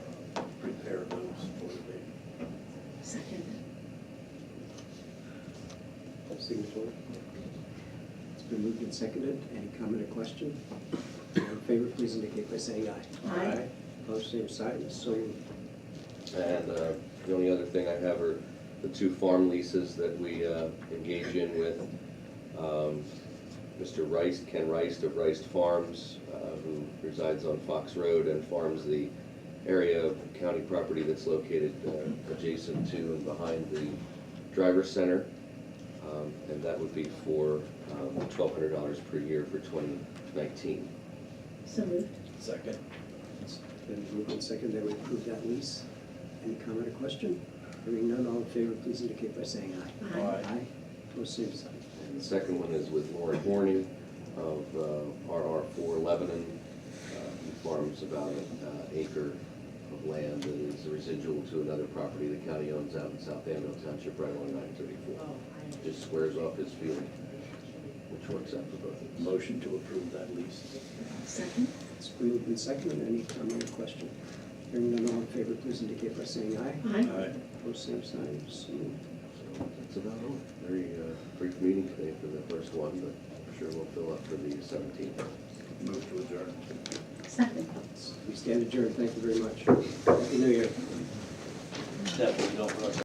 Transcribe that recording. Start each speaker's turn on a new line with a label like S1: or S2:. S1: on the floor? It's been moved and seconded. Any comment or question? All in favor, please indicate by saying aye.
S2: Aye.
S1: Opposed, same sign. So moved.
S3: And uh, the only other thing I have are the two farm leases that we uh, engage in with um, Mr. Rice, Ken Rice of Rice Farms, uh, who resides on Fox Road and farms the area of county property that's located uh, adjacent to and behind the driver's center. Um, And that would be for um, twelve hundred dollars per year for twenty nineteen.
S2: So moved.
S4: Second.
S1: It's been moved and seconded that we approve that lease. Any comment or question? Hearing none, all in favor, please indicate by saying aye.
S4: Aye.
S1: Aye. Opposed, same sign.
S3: And the second one is with Lauren Horning of uh, RR4 Lebanon, uh, who farms about an uh, acre of land that is residual to another property the county owns out in South Amno Township, right along 934. Just squares off his field, which works out for both of us.
S4: Motion to approve that lease.
S2: Second?
S1: It's been moved and seconded. Any comment or question? Hearing none, all in favor, please indicate by saying aye.
S2: Aye.
S1: Opposed, same sign. So moved.
S3: So That's about all. Very uh, brief meeting today for the first one, but I'm sure we'll fill up for the 17th.
S4: Move to adjourn.
S2: Second.
S1: We stand adjourned. Thank you very much. Happy New Year.
S4: Definitely don't rush